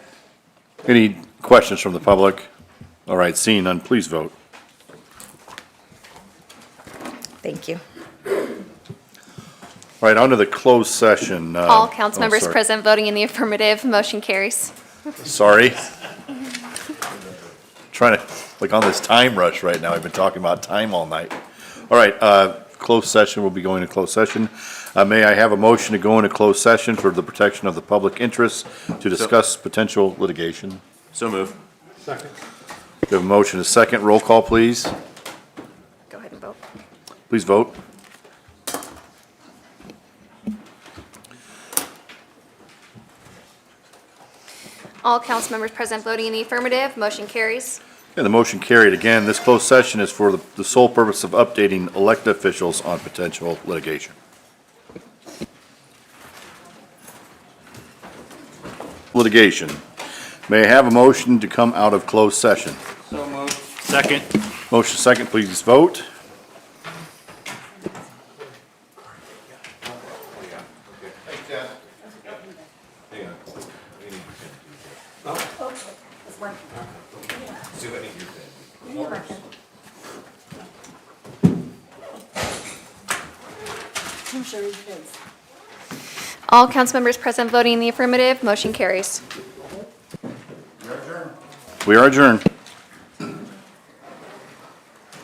Any questions from the public? All right, seeing none, please vote. Thank you. All right, on to the closed session. uh, All oh, council members sorry. present voting in the affirmative, motion carries. Sorry. Trying to, like, on this time rush right now, I've been talking about time all night. All right, uh, closed session, we'll be going to closed session. Uh, May I have a motion to go into closed session for the protection of the public interest to discuss potential litigation? So move. We have a motion, a second, roll call, please. Go ahead and vote. Please vote. All council members present voting in the affirmative, motion carries. And the motion carried. Again, this closed session is for the- the sole purpose of updating elected officials on potential litigation. Litigation. May I have a motion to come out of closed session? Second. Motion second, please vote. All council members present voting in the affirmative, motion carries. We are adjourned.